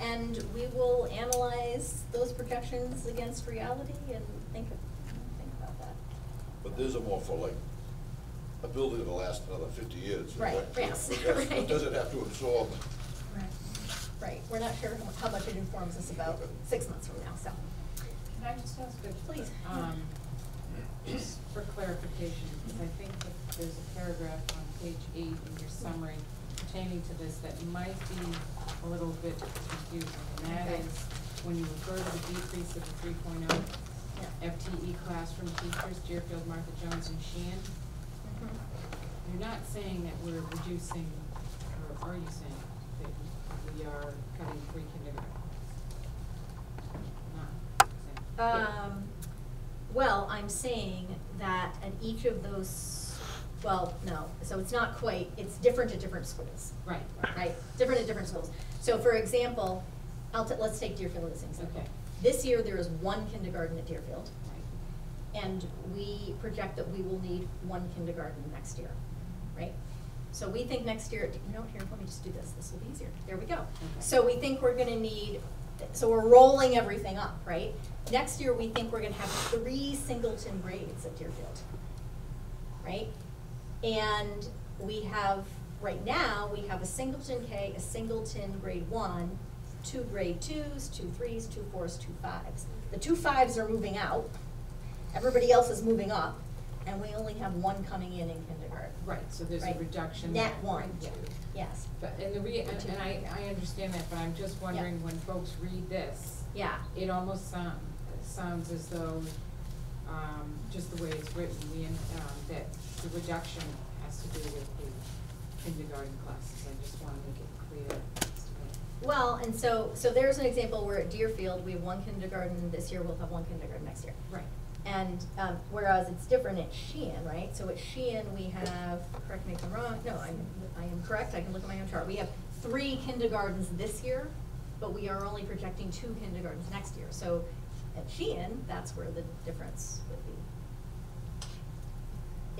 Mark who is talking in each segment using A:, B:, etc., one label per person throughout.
A: and we will analyze those projections against reality and think, of- think about that.
B: But these are more for like, a building that'll last another fifty years.
A: Right,
B: Like,
A: yes,
B: what does-
A: right.
B: What does it have to absorb?
A: Right. Right, we're not sure how much it informs us about six months from now, so.
C: Can I just ask a?
A: Please.
C: um, Just for clarification, because I think that there's a paragraph on page eight in your summary pertaining to this that might be a little bit confusing. And that
A: Okay.
C: is, when you refer to the decrease of the three oh
A: Yeah.
C: FTE classroom E teachers, Deerfield, Martha Jones, and Sheehan, you're not saying that we're reducing, or are you saying that we are cutting three kindergarten? Not saying.
A: Um, well, I'm saying that at each of those, well, no, so it's not quite, it's different at different schools.
C: Right.
A: Right, different at different schools. So for example, I'll, t- let's take Deerfield as an example.
C: Okay.
A: This year, there is one kindergarten at Deerfield,
C: Right.
A: and we project that we will need one kindergarten next year, right? So we think next year, you know, here, let me just do this, this will be easier, there we go. So we think we're gonna need, so we're rolling everything up, right? Next year, we think we're gonna have three singleton grades at Deerfield, right? And we have, right now, we have a singleton K, a singleton grade one, two grade twos, two threes, two fours, two fives. The two fives are moving out, everybody else is moving up, and we only have one coming in in kindergarten.
C: Right, so there's a
A: Right.
C: reduction.
A: Net
C: there,
A: one,
C: right, yeah.
A: yes,
C: But, and the re, and and I, I understand that, but I'm just wondering, when folks read this,
A: yeah,
C: it almost sound, sounds as though, um, just the way it's written, we, um, that the reduction has to do with the kindergarten classes, I just wanna make it clear. as to what-
A: Well, and so, so there's an example where at Deerfield, we have one kindergarten this year, we'll have one kindergarten next year.
C: Right,
A: And, um, whereas it's different at Sheehan, right? So at Sheehan, we have, correct me if I'm wrong, no, I'm, I am correct, I can look at my own chart. We have three kindergartens this year, but we are only projecting two kindergartens next year. So at Sheehan, that's where the difference would be.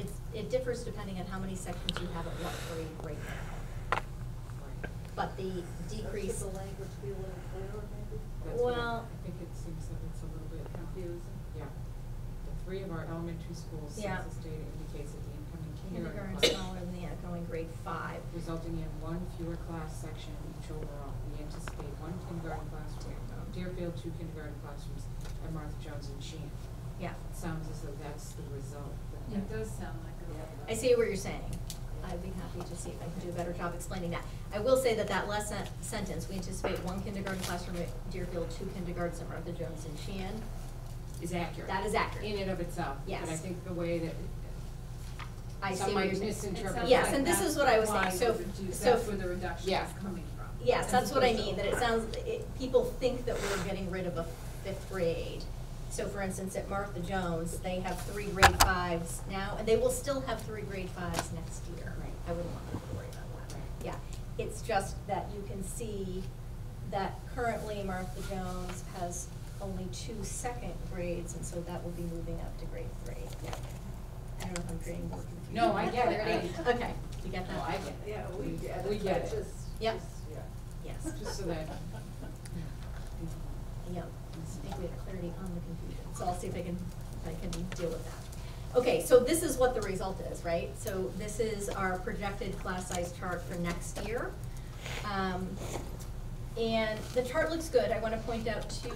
A: It's, it differs depending on how many sections you have at what grade right now.
C: right.
A: But the decrease.
D: Should the language be a little clearer, maybe?
C: That's what I-
A: Well-
C: I think it seems that it's a little bit confusing. Yeah. The three of our elementary schools,
A: Yeah.
C: census data indicates that the incoming
A: Kindergarten
C: kindergarten class.
A: smaller than the outgoing grade five.
C: resulting in one fewer class section each overall. We anticipate one kindergarten classroom, at Deerfield, two kindergarten classrooms, and Martha Jones and Sheehan.
A: Yeah,
C: It sounds as though that's the result. but
E: It
C: that-
E: does sound like a.
A: I see what you're saying. I'd be happy to see if I can do a better job explaining that. I will say that that last sen- sentence, we anticipate one kindergarten classroom at Deerfield, two kindergartens at Martha Jones and Sheehan.
C: Is accurate.
A: That is accurate.
C: In and of itself. But I
A: Yes.
C: think the way that.
A: I see
C: Some
A: what
C: might
A: you're saying.
C: misinterpret.
E: It sounds
A: Yes,
E: like
A: and this
E: that's
A: is what I was
E: why
A: saying, so,
E: the redu-
A: so.
E: That's where the reduction
C: Yeah.
E: is coming from.
A: Yes,
E: as
A: that's what I
E: opposed to-
A: mean, that it sounds, it, people think that we're getting rid of a fifth grade. So for instance, at Martha Jones, they have three grade fives now, and they will still have three grade fives next year.
C: Right.
A: I wouldn't want them to worry about that.
C: Right.
A: Yeah, it's just that you can see that currently Martha Jones has only two second grades, and so that will be moving up to grade three. I don't know if I'm creating more confusion.
C: No, I
A: than
C: get it.
A: clarity.
C: I-
A: Okay, you get that?
E: Oh,
C: No, I get it.
D: Yeah, we get it.
C: We get
D: but
C: it.
D: Just.
A: Yep.
D: just- Yeah.
A: Yes.
C: Just so that.
A: Yeah, I think we have clarity on the confusion, so I'll see if I can, if I can deal with that. Okay, so this is what the result is, right? So this is our projected class size chart for next year. Um, and the chart looks good, I wanna point out two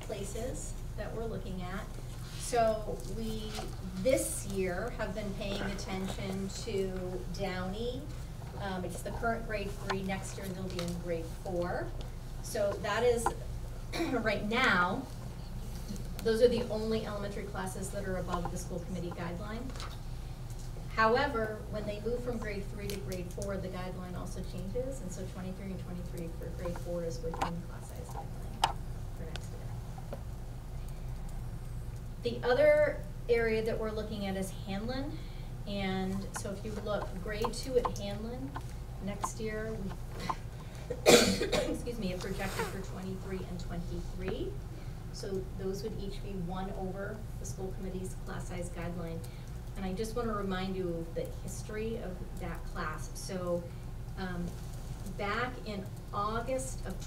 A: places that we're looking at. So we, this year, have been paying attention to Downey. Um, it's the current grade three, next year they'll be in grade four. So that is, right now, those are the only elementary classes that are above the school committee guideline. However, when they move from grade three to grade four, the guideline also changes, and so twenty-three and twenty-three for grade four is within class size guideline for next year. The other area that we're looking at is Hanlon, and so if you look, grade two at Hanlon, next year, we, excuse me, are projected for twenty-three and twenty-three. So those would each be one over the school committee's class size guideline. And I just wanna remind you of the history of that class. So, um, back in August of